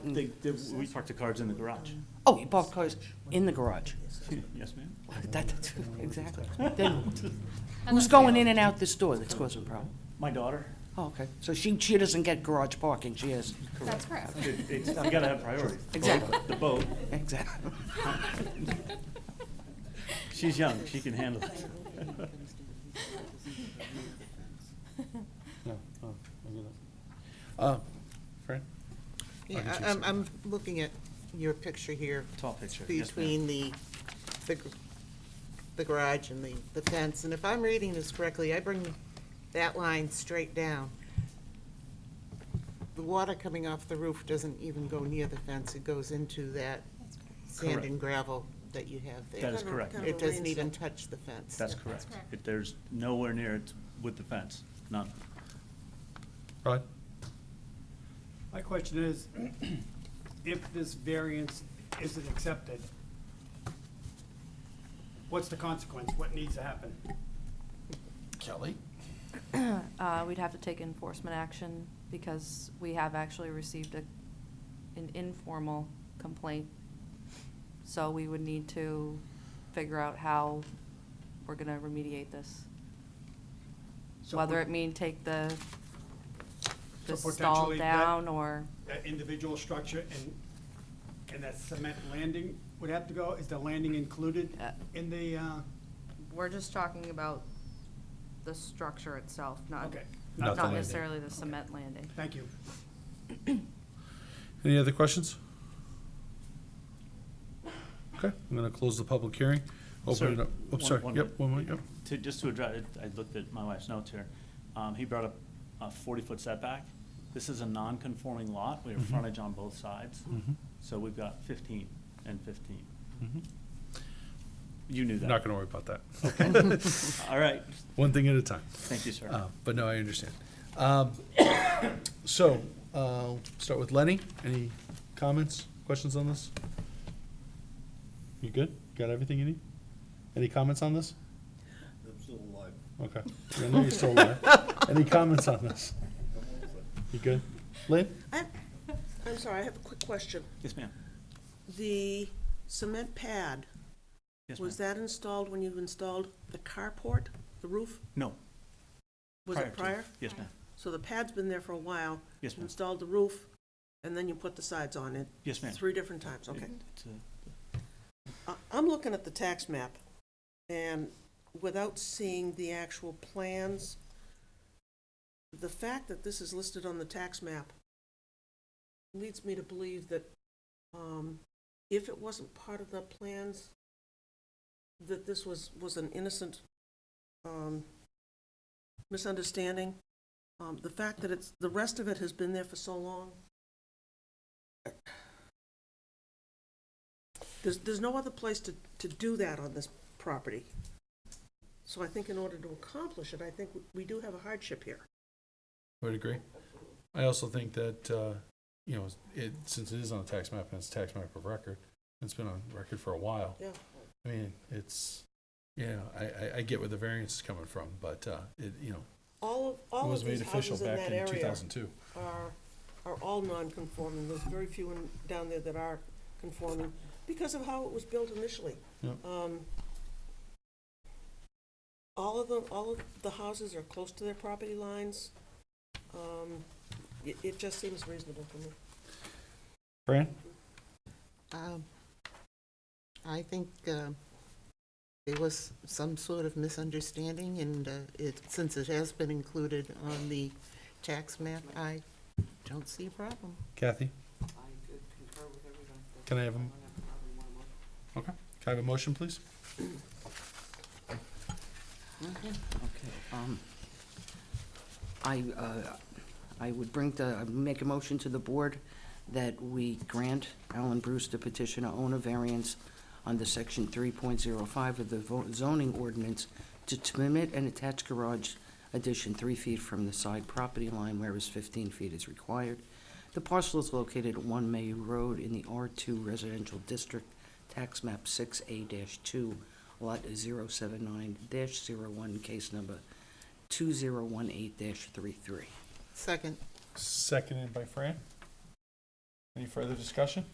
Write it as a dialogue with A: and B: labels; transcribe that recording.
A: Mm.
B: They, they, we parked the cars in the garage.
A: Oh, you parked cars in the garage.
B: Yes, ma'am?
A: That, that's, exactly. Then who's going in and out this door that's causing problem?
B: My daughter,
A: Oh, okay. So she, she doesn't get garage parking, she has,
C: That's correct.
B: it, it's, you gotta have priority.
A: Exactly.
B: The boat,
A: exactly.
B: she's young, she can handle it.
D: No, no, I get that. Uh, Fran?
E: Yeah,
D: can see
E: I- I'm, I'm looking at your picture here.
B: Tall picture, yes, ma'am.
E: Between the, the gr- the garage and the, the fence, and if I'm reading this correctly, I bring that line straight down. The water coming off the roof doesn't even go near the fence, it goes into that sand
B: Correct.
E: and gravel that you have there.
B: That is correct.
E: It doesn't even touch the fence.
B: That's correct.
C: correct.
B: It, there's nowhere near it with the fence, none.
D: Rod?
F: My question is, if this variance isn't accepted, what's the consequence? What needs to happen?
D: Kelly?
G: Uh, we'd have to take enforcement action because we have actually received a, an informal complaint. So we would need to figure out how we're gonna remediate this.
F: So
G: Whether
F: would-
G: it mean take the, the
F: So
G: stall
F: potentially that-
G: down or,
F: That individual structure and, and that cement landing would have to go? Is the landing included
G: Uh,
F: in the, uh,
G: we're just talking about the structure itself, not,
F: okay,
D: Not the
G: not
D: landing.
G: necessarily the cement landing.
F: thank you.
D: Any other questions? Okay, I'm gonna close the public hearing.
B: Sir,
D: Open it up.
B: one-
D: Oops, sorry.
B: one
D: Yep,
B: minute.
D: one more, yep.
B: To, just to address, it, I looked at my wife's notes here. Um, he brought up a forty-foot setback. This is a non-conforming lot. We have
A: Mm-hmm.
B: frontage on both sides.
D: Mhm.
B: So we've got fifteen and fifteen.
A: Mm-hmm.
D: Mhm.
B: You knew that.
D: Not gonna worry about that.
B: All right.
D: One thing at a time.
B: Thank you, sir.
D: Uh, But no, I understand. Um, So, uh, start with Lenny. Any comments, questions on this? You good? Got everything you need? Any comments on this? I'm still alive. Okay. I know you're still alive. Any comments on this? You good? Lynn?
H: I, I'm sorry, I have a quick question.
B: Yes, ma'am.
H: The cement pad,
B: Yes, ma'am.
H: was that installed when you installed the carport, the roof?
B: No.
H: Was it
B: to-
H: prior?
B: Yes, ma'am.
H: So the pad's been there for a while?
B: Yes, ma'am.
H: Installed the roof, and then you put the sides on it?
B: Yes, ma'am.
H: Three different times, okay.
B: It's, uh,
H: I- I'm looking at the tax map, and without seeing the actual plans, the fact that this is listed on the tax map leads me to believe that um, if it wasn't part of the plans, that this was, was an innocent um, misunderstanding. Um, The fact that it's, the rest of it has been there for so long, There's, there's no other place to, to do that on this property. So I think in order to accomplish it, I think we do have a hardship here.
D: I would agree. I also think that, uh, you know, it, since it is on a tax map and it's a tax map of record, it's been on record for a while.
H: Yeah.
D: I mean, it's, you know, I, I, I get where the variance is coming from, but, uh, it, you know,
H: All of,
D: it
H: all of
D: was made
H: these
D: official
H: houses in
D: back
H: that
D: in two
H: area
D: thousand two.
H: are, are all non-conforming. There's very few in, down there that are conforming because of how it was built initially.
D: Yep.
H: Um, All of them, all of the houses are close to their property lines. Um, It, it just seems reasonable to me.
D: Fran?
E: Um, I think uh, there was some sort of misunderstanding, and uh, it, since it has been included on the tax map, I don't see a problem.
D: Kathy? Can I have a? Okay, can I have a motion, please?
A: Okay, um, I, uh, I would bring the, I would make a motion to the board that we grant Alan Bruce the petition to own a variance under section three point zero five of the vo- zoning ordinance to permit an attached garage addition three feet from the side property line whereas fifteen feet is required. The parcel is located at One May Road in the R two residential district, tax map six A two, lot 079-01, case number two zero one eight 33
E: Second,
D: Seconded by Fran. Any further discussion?